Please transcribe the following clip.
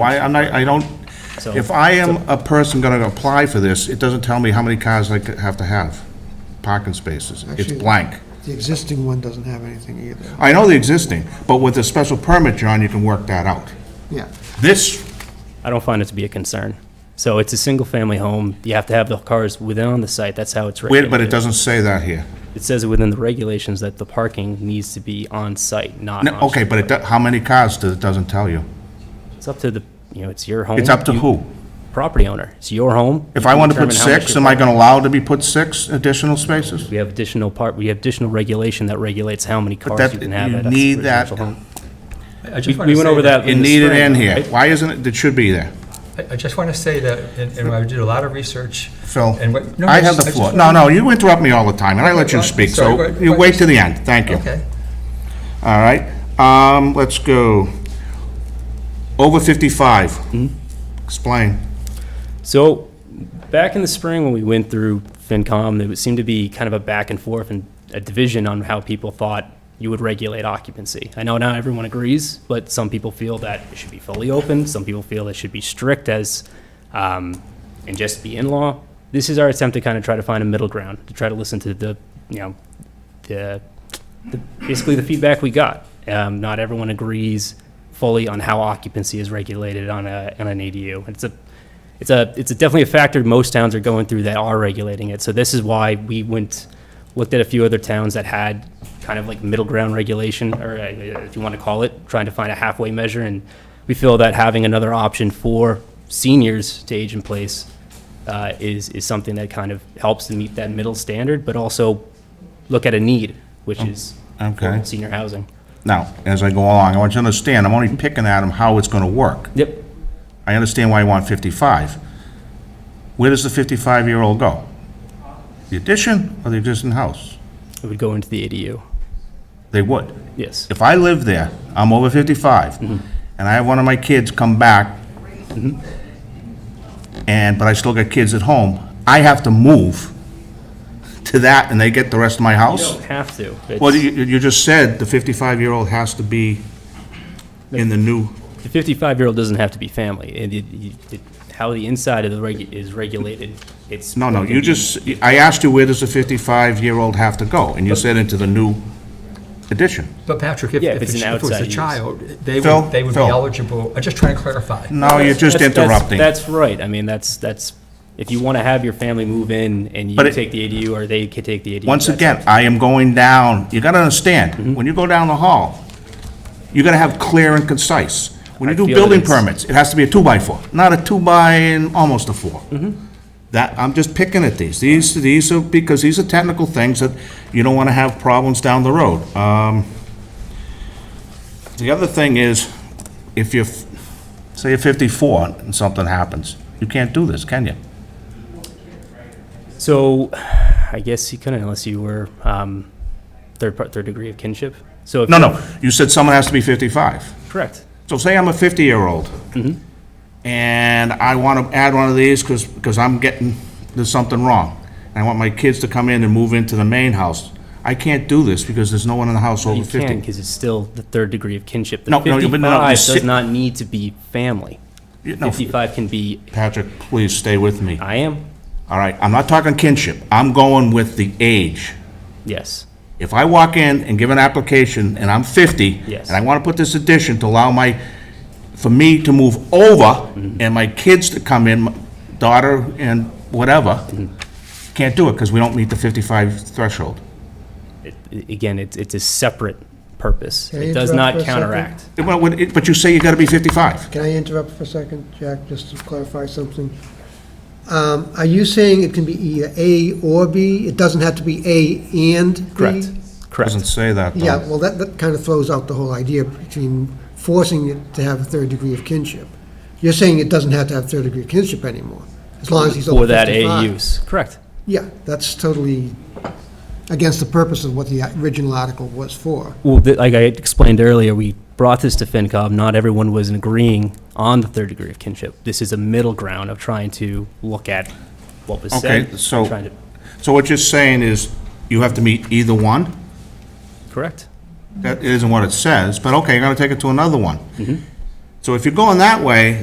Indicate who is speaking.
Speaker 1: Why, I'm not, I don't,
Speaker 2: So-
Speaker 1: if I am a person gonna apply for this, it doesn't tell me how many cars I could have to have, parking spaces. It's
Speaker 3: Actually-
Speaker 1: blank.
Speaker 3: The existing one doesn't have anything either.
Speaker 1: I know the existing, but with a special permit, John, you can work that out.
Speaker 3: Yeah,
Speaker 1: This,
Speaker 2: I don't find it to be a concern. So it's a single-family home, you have to have the cars within on the site, that's how it's
Speaker 1: wait,
Speaker 2: regulated.
Speaker 1: but it doesn't say that here.
Speaker 2: It says within the regulations that the parking needs to be on-site, not
Speaker 1: No,
Speaker 2: on.
Speaker 1: Okay, but it, do- how many cars does, it doesn't tell you?
Speaker 2: It's up to the, you know, it's your home.
Speaker 1: It's up to
Speaker 2: you-
Speaker 1: who?
Speaker 2: Property owner, it's your home.
Speaker 1: If
Speaker 2: You
Speaker 1: I want to put
Speaker 2: determine how much
Speaker 1: six,
Speaker 2: your
Speaker 1: am I gonna allow to be put six additional spaces?
Speaker 2: We have additional part, we have additional regulation that regulates how many cars
Speaker 1: that-
Speaker 2: you can have
Speaker 1: you
Speaker 2: at a
Speaker 1: need that-
Speaker 2: residential home.
Speaker 4: I- I just
Speaker 2: We
Speaker 4: wanna
Speaker 2: we went
Speaker 4: say
Speaker 2: over that
Speaker 1: It
Speaker 2: in the
Speaker 1: needed
Speaker 2: spring,
Speaker 1: in here.
Speaker 2: right?
Speaker 1: Why isn't it, it should be there,
Speaker 4: I I just want to say that, and and I did a lot of research.
Speaker 1: Phil?
Speaker 4: and what- no,
Speaker 1: I
Speaker 4: just-
Speaker 1: have the
Speaker 4: just
Speaker 1: floor.
Speaker 4: wanna-
Speaker 1: No, no, you interrupt me all the time, and I let you
Speaker 4: well,
Speaker 1: speak,
Speaker 4: sorry,
Speaker 1: so
Speaker 4: but-
Speaker 1: you
Speaker 4: but-
Speaker 1: wait to the end. Thank you.
Speaker 4: Okay.
Speaker 1: All right, um, let's go. Over 55. Explain.
Speaker 2: So, back in the spring when we went through FinCom, there seemed to be kind of a back and forth and a division on how people thought you would regulate occupancy. I know not everyone agrees, but some people feel that it should be fully open, some people feel it should be strict as, um, and just be in-law. This is our attempt to kind of try to find a middle ground, to try to listen to the, you know, the, the basically the feedback we got. Um, not everyone agrees fully on how occupancy is regulated on a, on an ADU. It's a, it's a, it's a definitely a factor most towns are going through that are regulating it. So this is why we went, looked at a few other towns that had kind of like middle ground regulation, or uh, if you want to call it, trying to find a halfway measure. And we feel that having another option for seniors to age in place uh, is, is something that kind of helps to meet that middle standard, but also look at a need, which is
Speaker 1: Oh, Okay.
Speaker 2: senior housing.
Speaker 1: Now, as I go along, I want you to understand, I'm only picking at them how it's gonna work.
Speaker 2: Yep.
Speaker 1: I understand why you want 55. Where does the 55-year-old go? The addition or the existing house?
Speaker 2: It would go into the ADU.
Speaker 1: They would.
Speaker 2: Yes.
Speaker 1: If I live there, I'm over 55,
Speaker 2: Mm-hmm.
Speaker 1: and I have one of my kids come back, and, but I still got kids at home, I have to move to that, and they get the rest of my house?
Speaker 2: Have to. It's-
Speaker 1: Well, you, you just said the 55-year-old has to be in the new,
Speaker 2: The 55-year-old doesn't have to be family. It- it- you- it- How the inside of the reg, is regulated, it's.
Speaker 1: no, no, you just, I asked you where does the 55-year-old have to go, and you said into the new addition.
Speaker 4: But Patrick, if
Speaker 2: Yeah, if
Speaker 4: if
Speaker 2: it's
Speaker 4: it's-
Speaker 2: an
Speaker 4: if it was
Speaker 2: outside
Speaker 4: a
Speaker 2: use.
Speaker 4: child, they
Speaker 1: Phil,
Speaker 4: would, they would be
Speaker 1: Phil.
Speaker 4: eligible, I'm just trying to clarify.
Speaker 1: No, you're just
Speaker 2: That's- that's-
Speaker 1: interrupting.
Speaker 2: That's right. I mean, that's, that's, if you want to have your family move in and you
Speaker 1: But it-
Speaker 2: take the ADU or they could take the ADU.
Speaker 1: Once
Speaker 2: that's- Mm-hmm.
Speaker 1: again, I am going down, you gotta understand, when you go down the hall, you gotta have clear and concise. When you
Speaker 2: I
Speaker 1: do
Speaker 2: feel
Speaker 1: building
Speaker 2: it is.
Speaker 1: permits, it has to be a two-by-four, not a two-by and almost a four.
Speaker 2: Mm-hmm.
Speaker 1: That, I'm just picking at these, these, these are, because these are technical things that you don't wanna have problems down the road. Um, The other thing is, if you're, f- say you're fifty-four and something happens, you can't do this, can you?
Speaker 2: So I guess you couldn't unless you were um, third, par- third degree of kinship. So. if
Speaker 1: No,
Speaker 2: you-
Speaker 1: no, you said someone has to be fifty-five.
Speaker 2: Correct.
Speaker 1: So say I'm a 50-year-old, Mm-hmm. and I want to add one of these because, I'm getting, there's something wrong. And I want my kids to come in and move into the main house. I can't do this because there's no one in the house over
Speaker 2: You can
Speaker 1: 50.
Speaker 2: because it's still the third degree of kinship. The
Speaker 1: No, no, but no, you
Speaker 2: 55 does
Speaker 1: sit-
Speaker 2: not need to be family.
Speaker 1: You- no,
Speaker 2: 55 can be,
Speaker 1: Patrick, please stay with me.
Speaker 2: I am,
Speaker 1: All right, I'm not talking kinship. I'm going with the age.
Speaker 2: yes.
Speaker 1: If I walk in and give an application and I'm 50,
Speaker 2: Yes.
Speaker 1: and I want to put this addition to allow my, for me to move over
Speaker 2: Mm-hmm.
Speaker 1: and my kids to come in, my daughter and whatever,
Speaker 2: Mm-hmm.
Speaker 1: can't do it because we don't meet the 55 threshold.
Speaker 2: it- again, it's, it's a separate purpose.
Speaker 3: I
Speaker 2: It does
Speaker 3: interrupt
Speaker 2: not
Speaker 3: for a second?
Speaker 2: counteract.
Speaker 1: Well, what it- But you say you got to be 55.
Speaker 3: can I interrupt for a second, Jack, just to clarify something? Um, Are you saying it can be either A or B? It doesn't have to be A and B?
Speaker 2: Correct,
Speaker 1: Doesn't
Speaker 2: correct.
Speaker 1: say that, though.
Speaker 3: Yeah, well, that, that kind of throws out the whole idea between forcing it to have a third degree of kinship. You're saying it doesn't have to have third degree of kinship anymore, as long as he's over
Speaker 2: For that
Speaker 3: 55.
Speaker 2: A use, correct.
Speaker 3: Yeah, that's totally against the purpose of what the original article was for.
Speaker 2: Well, th- like I explained earlier, we brought this to FinCom, not everyone was agreeing on the third degree of kinship. This is a middle ground of trying to look at what was said.
Speaker 1: Okay, so-
Speaker 2: trying to-
Speaker 1: So what you're saying is you have to meet either one?
Speaker 2: Correct. Mm-hmm.
Speaker 1: That isn't what it says, but okay, you're going to take it to another one. So if you're going that way,